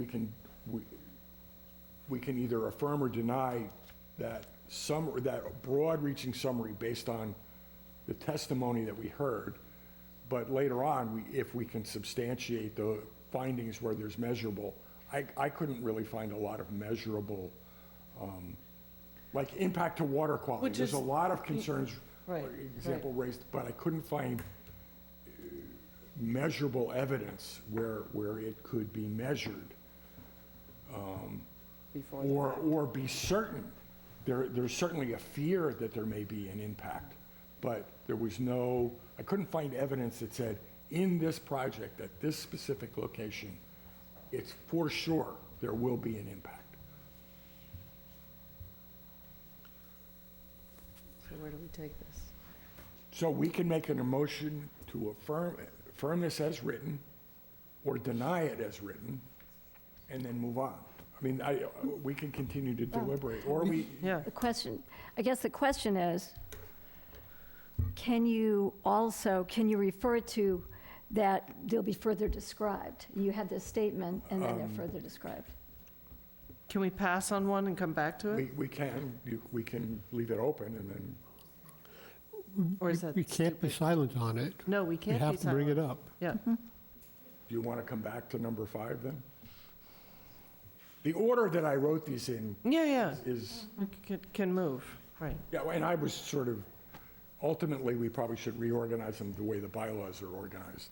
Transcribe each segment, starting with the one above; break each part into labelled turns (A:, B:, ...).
A: we can, we, we can either affirm or deny that summary, that broad-reaching summary based on the testimony that we heard. But later on, we, if we can substantiate the findings where there's measurable, I, I couldn't really find a lot of measurable, um, like impact to water quality.
B: Which
A: There's a
B: is-
A: lot of concerns, for
B: Right,
A: example, raised, but I couldn't find uh, measurable evidence where, where it could be measured um,
B: before. the-
A: or, or be certain. There, there's certainly a fear that there may be an impact, but there was no, I couldn't find evidence that said, in this project, at this specific location, it's for sure there will be an impact.
B: So where do we take this?
A: So we can make an emotion to affirm, affirm this as written, or deny it as written, and then move on. I mean, I, we can continue to deliberate, or we,
B: Yeah,
C: The question, I guess the question is, can you also, can you refer to that they'll be further described? You had this statement, and then they're further described.
B: can we pass on one and come back to
A: we,
B: it?
A: we can, you- we can leave it open and then
B: Or is that
D: We can't be
B: stupid?
D: silent on it.
B: No, we
D: We
B: can't be
D: have to bring it
B: silent.
D: up.
B: Yeah,
A: Do you want to come back to number five then? The order that I wrote these in
B: yeah, yeah,
A: is,
B: we can- can move, right.
A: yeah, and I was sort of, ultimately, we probably should reorganize them the way the bylaws are organized,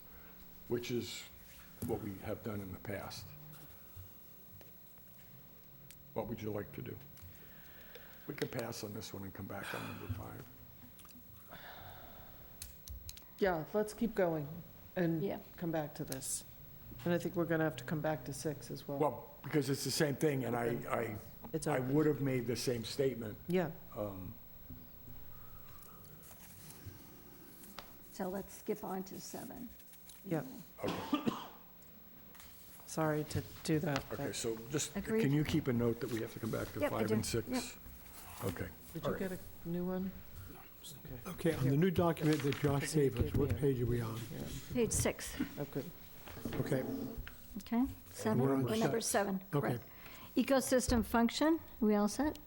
A: which is what we have done in the past. What would you like to do? We can pass on this one and come back on number five.
B: Yeah, let's keep going and
C: Yeah.
B: come back to this. And I think we're going to have to come back to six as well.
A: Well, because it's the same thing, and I,
B: It's
A: I, I
B: open.
A: would have made the same statement.
B: Yeah,
C: So let's skip on to seven.
B: yeah. Sorry to do that. but-
A: Okay, so just,
C: Agreed.
A: can you keep a note that we have to come back to
C: Yep, I
A: five
C: do.
A: and six?
C: Yep.
A: Okay.
B: Did
A: all
B: you
A: right.
B: get a new one?
D: Okay, on the new document that Josh gave us, what page are we on?
B: Yeah,
C: Page six,
B: oh, good.
D: Okay,
C: okay? Seven,
D: we're on
C: We're number seven,
D: Okay.
C: correct. Ecosystem function, we all set?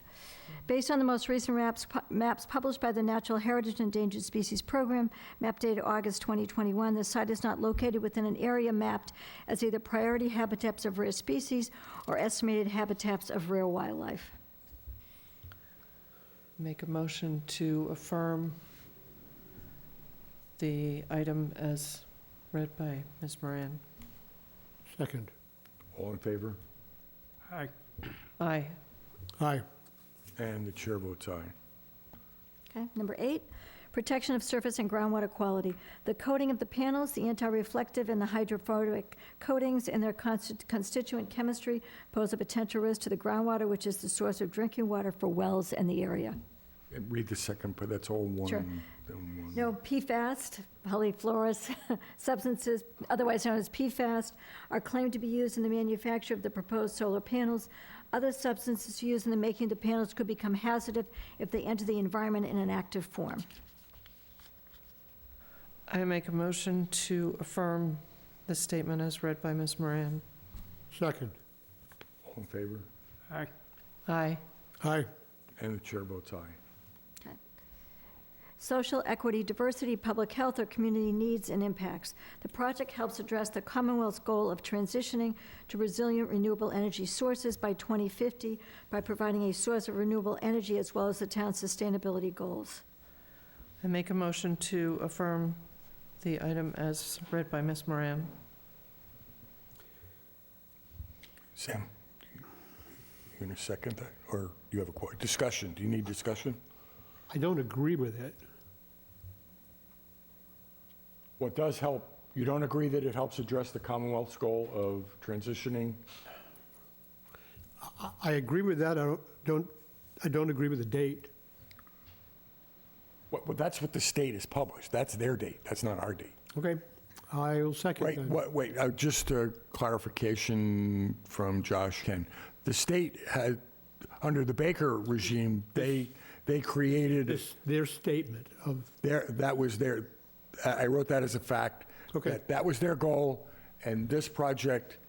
C: Based on the most recent maps, pu- maps published by the Natural Heritage and Endangered Species Program, map dated August 2021, the site is not located within an area mapped as either priority habitats of rare species or estimated habitats of rare wildlife.
B: Make a motion to affirm the item as read by Ms. Moran.
D: second.
A: All in favor?
D: Aye.
B: Aye.
D: Aye,
A: And the chair votes aye.
C: Okay, number eight, protection of surface and groundwater quality. The coating of the panels, the anti-reflective and the hydrophobic coatings and their consti- constituent chemistry pose a potential risk to the groundwater, which is the source of drinking water for wells in the area.
A: And Read the second, but that's all one.
C: Sure.
A: then one.
C: No, PFAS, polyfluorous substances, otherwise known as PFAS, are claimed to be used in the manufacture of the proposed solar panels. Other substances used in the making of the panels could become hazardous if they enter the environment in an active form.
B: I make a motion to affirm the statement as read by Ms. Moran.
D: second.
A: All in favor?
B: Aye.
D: Aye,
A: And the chair votes aye.
C: Social equity, diversity, public health, or community needs and impacts. The project helps address the Commonwealth's goal of transitioning to resilient renewable energy sources by 2050 by providing a source of renewable energy as well as the town's sustainability goals.
B: I make a motion to affirm the item as read by Ms. Moran.
A: Sam, you gonna second that, or you have a que- discussion? Do you need discussion?
D: I don't agree with it.
A: What does help, you don't agree that it helps address the Commonwealth's goal of transitioning?
D: I- I agree with that, I don't- don't, I don't agree with the date.
A: Well, well, that's what the state has published. That's their date. That's not our date.
D: Okay, I'll
A: Right,
D: second then.
A: wait, wait, uh, just a clarification from Josh Ken. The state had, under the Baker regime, they, they created,
D: This- Their statement of,
A: their, that was their, I I wrote that as a fact.
D: Okay.
A: that That was their goal, and this project